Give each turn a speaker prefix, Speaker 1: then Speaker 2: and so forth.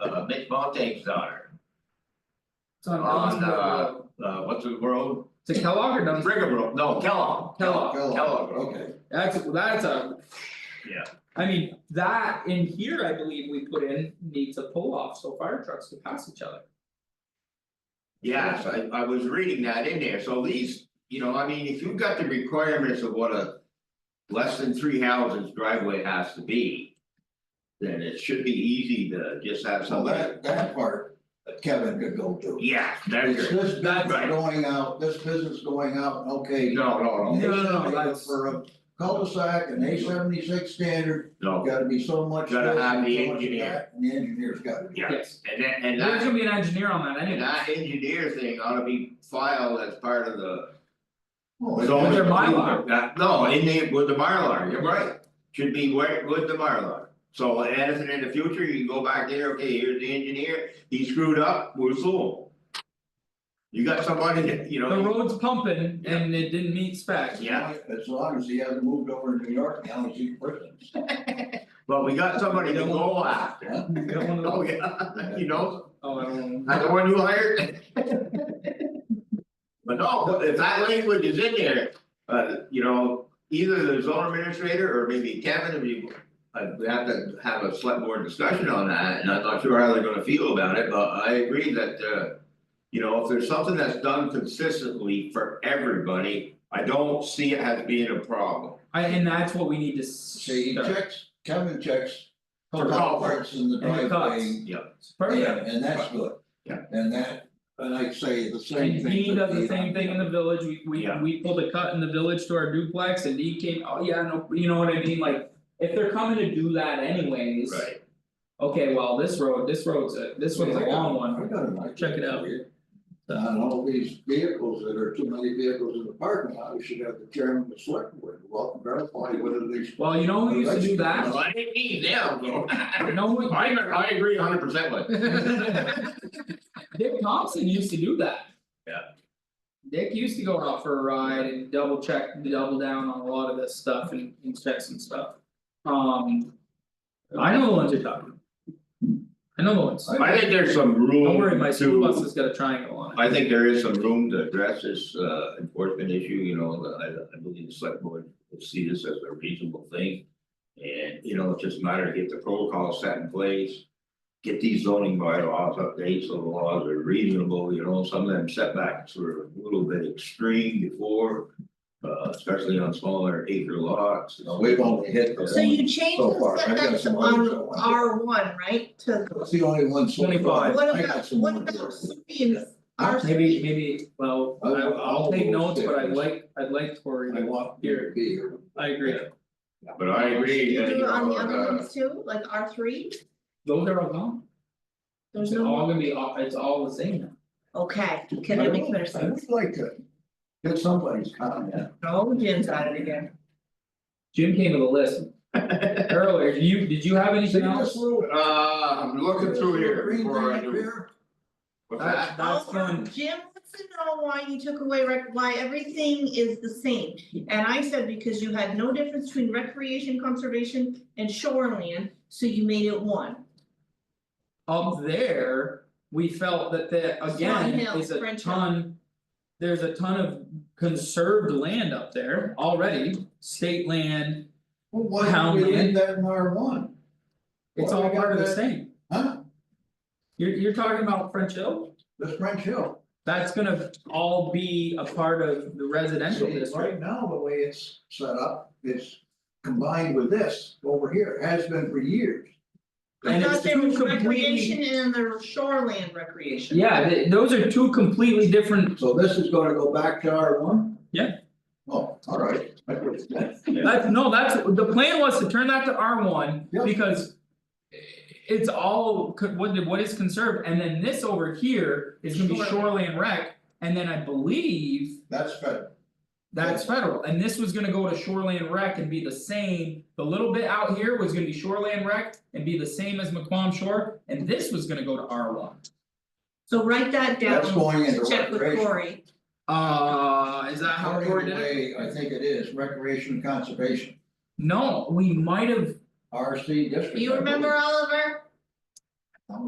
Speaker 1: uh, Mitch Montague's daughter,
Speaker 2: It's on
Speaker 1: On,
Speaker 2: Collinsville
Speaker 1: uh,
Speaker 2: Road.
Speaker 1: uh, what's the road?
Speaker 2: To Kellogg or Dunsmore?
Speaker 1: Brigabrook, no, Kellogg, Kellogg,
Speaker 3: Kellogg,
Speaker 1: Kellogg Road.
Speaker 3: Okay,
Speaker 2: That's, that's a.
Speaker 1: Yeah.
Speaker 2: I mean, that in here, I believe we put in needs a pull off so fire trucks can pass each other.
Speaker 1: Yes, I I was reading that in there, so these, you know, I mean, if you've got the requirements of what a. Less than three houses driveway has to be. Then it should be easy to just have
Speaker 3: so
Speaker 1: somebody,
Speaker 3: that that part Kevin could go to.
Speaker 1: yeah, that's it,
Speaker 3: It's this
Speaker 2: That's
Speaker 3: business
Speaker 1: right.
Speaker 3: going out, this business going out, okay.
Speaker 1: no, no, no,
Speaker 2: No, no, no,
Speaker 3: It's
Speaker 2: that's-
Speaker 3: For a cul-de-sac and A seventy six standard,
Speaker 1: no,
Speaker 3: gotta be so much.
Speaker 1: Gotta
Speaker 3: this
Speaker 1: have
Speaker 3: and
Speaker 1: the
Speaker 3: so much of
Speaker 1: engineer.
Speaker 3: that, And the engineer's gotta be.
Speaker 1: Yeah.
Speaker 2: Yes,
Speaker 1: and that and
Speaker 2: there's
Speaker 1: that,
Speaker 2: gonna be an engineer on that
Speaker 1: and
Speaker 2: anyway.
Speaker 1: that engineer thing ought to be filed as part of the.
Speaker 3: Oh,
Speaker 1: It's
Speaker 3: it's-
Speaker 1: always-
Speaker 2: Their Mylar.
Speaker 1: That- no, in the, with the Mylar, you're right, should be where, with the Mylar. So Addison, in the future, you can go back there, okay, here's the engineer, he screwed up, we'll sue him. You got somebody that, you
Speaker 2: The
Speaker 1: know,
Speaker 2: road's pumping and it didn't meet spec.
Speaker 1: yeah.
Speaker 3: As long as he hasn't moved over to New York, now he's in prison.
Speaker 1: but we got somebody to go after.
Speaker 3: Huh?
Speaker 2: You don't wanna-
Speaker 1: Oh, yeah, you know,
Speaker 2: Oh, I don't
Speaker 1: not
Speaker 2: know.
Speaker 1: the one you hired. But no, if that language is in there, uh, you know, either the zone administrator or maybe Kevin, if you. I we have to have a select board discussion on that, and I'm not sure how they're gonna feel about it, but I agree that, uh. You know, if there's something that's done consistently for everybody, I don't see it as being a problem.
Speaker 2: I, and that's what we need to
Speaker 3: See, he
Speaker 2: start.
Speaker 3: checks, Kevin checks.
Speaker 1: For
Speaker 3: the
Speaker 1: culverts.
Speaker 3: in the
Speaker 2: And the cuts.
Speaker 3: driveway.
Speaker 2: Perfect.
Speaker 3: And and that's good.
Speaker 1: Yeah.
Speaker 3: And that, and I'd say the same
Speaker 2: And
Speaker 3: thing.
Speaker 2: Dean does the
Speaker 3: with
Speaker 2: same thing in the village, we we
Speaker 1: Yeah.
Speaker 2: we pulled a cut in the village to our duplex and Dean came, oh yeah, no, you know what I mean, like. If they're coming to do that anyways.
Speaker 1: Right,
Speaker 2: Okay, well, this road, this road's a, this one's a long one,
Speaker 3: I got an idea
Speaker 2: Check it out.
Speaker 3: for you. On all these vehicles that are too many vehicles in the parking lot, we should have the chairman of the select board, well, verify whether these.
Speaker 2: well, you know who used to do
Speaker 1: well,
Speaker 2: that?
Speaker 1: I didn't need them, though.
Speaker 2: You
Speaker 1: I
Speaker 2: know who,
Speaker 1: I agree hundred percent with. you.
Speaker 2: Dick Thompson used to do that.
Speaker 1: Yeah.
Speaker 2: Dick used to go out for a ride and double check, double down on a lot of this stuff and and check some stuff. Um. I know the ones you're talking. about. I know the ones,
Speaker 1: I think there's some room to.
Speaker 2: don't worry, my school bus has got a triangle on it.
Speaker 1: I think there is some room to address this uh enforcement issue, you know, the- I I believe the select board will see this as a reasonable thing. And, you know, it's just a matter of get the protocol set in place. Get these zoning bylaws updates, so the laws are reasonable, you know, some of them setbacks were a little bit extreme before. Uh especially on smaller acre lots, you know.
Speaker 3: We've only hit the
Speaker 4: So you
Speaker 3: one,
Speaker 4: changed
Speaker 3: so
Speaker 4: the
Speaker 3: far. I got
Speaker 4: setbacks
Speaker 3: some others I
Speaker 4: on
Speaker 3: want.
Speaker 4: R one, right, to.
Speaker 3: it's the only one so far,
Speaker 2: Twenty-five.
Speaker 4: What
Speaker 3: I got
Speaker 4: about,
Speaker 3: some Uh,
Speaker 4: what
Speaker 3: more.
Speaker 4: about streams, R
Speaker 2: Maybe maybe, well, I
Speaker 3: I'll-
Speaker 2: I'll
Speaker 3: I'll
Speaker 2: take notes, but I
Speaker 3: sit.
Speaker 2: like, I'd like Tori
Speaker 3: I
Speaker 2: to,
Speaker 3: want here to be here.
Speaker 2: I agree,
Speaker 1: But I agree,
Speaker 4: you
Speaker 1: that,
Speaker 4: do
Speaker 1: you
Speaker 4: it on
Speaker 1: know,
Speaker 4: the other
Speaker 1: uh,
Speaker 4: ones too, like R three,
Speaker 2: those are all gone,
Speaker 4: there's
Speaker 2: it's
Speaker 4: no,
Speaker 2: all gonna be, all- it's all the same now.
Speaker 4: okay, can I make better
Speaker 3: I
Speaker 4: sense?
Speaker 3: would like to get somebody's comment.
Speaker 4: No, Jim's out of it again.
Speaker 2: Jim came to the list earlier, you, did you have
Speaker 3: See
Speaker 2: anything
Speaker 3: this
Speaker 2: else?
Speaker 3: little.
Speaker 1: uh, I'm looking
Speaker 3: this
Speaker 1: through
Speaker 3: little
Speaker 1: here
Speaker 3: green
Speaker 1: before I
Speaker 3: thing
Speaker 1: do.
Speaker 3: up here?
Speaker 1: What's
Speaker 2: That's-
Speaker 1: that?
Speaker 2: That's
Speaker 4: Oh,
Speaker 2: fun.
Speaker 4: Jim wants to know why you took away rec, why everything is the same. And I said because you had no difference between recreation, conservation and shoreland, so you made it one.
Speaker 2: Up there, we felt that that again
Speaker 4: Swan Hill,
Speaker 2: is a
Speaker 4: French Hill.
Speaker 2: ton. There's a ton of conserved land up there already, state land,
Speaker 3: Well, why don't we leave
Speaker 2: Townland.
Speaker 3: that in R one?
Speaker 2: it's
Speaker 3: Well,
Speaker 2: all
Speaker 3: I got
Speaker 2: part of the
Speaker 3: that.
Speaker 2: same.
Speaker 3: Huh?
Speaker 2: You're you're talking about French Hill,
Speaker 3: This French Hill.
Speaker 2: that's gonna all be a part of the residential
Speaker 3: See,
Speaker 2: district.
Speaker 3: Right now, the way it's set up, it's combined with this over here, has been for years.
Speaker 4: I
Speaker 2: And it's
Speaker 4: thought there
Speaker 2: two
Speaker 4: was
Speaker 2: completely-
Speaker 4: recreation and there was shoreland recreation.
Speaker 2: Yeah, th- those are two completely different,
Speaker 3: So this is gonna go back to R one?
Speaker 2: Yeah.
Speaker 3: Oh, all right. I agree with that.
Speaker 2: that's, no, that's, the plan was to turn that to R one,
Speaker 3: Yeah.
Speaker 2: because. It's all, co- what what is conserved, and then this over here is gonna be
Speaker 4: Shoreline.
Speaker 2: shoreline rec, and then I believe.
Speaker 3: That's fed,
Speaker 2: That's federal, and this was gonna go to shoreline rec and be the same, the little bit out here was gonna be shoreline rec and be the same as McQuam Shore, and this was gonna go to R one.
Speaker 4: So write that down.
Speaker 3: that's going into
Speaker 4: Check with
Speaker 3: recreation.
Speaker 4: Cory.
Speaker 2: Uh, is that how Cory
Speaker 3: According
Speaker 2: did
Speaker 3: to the
Speaker 2: it?
Speaker 3: way I think it is, recreation and conservation,
Speaker 2: No, we might have
Speaker 3: R C district.
Speaker 4: You
Speaker 3: I
Speaker 4: remember
Speaker 3: believe.
Speaker 4: Oliver?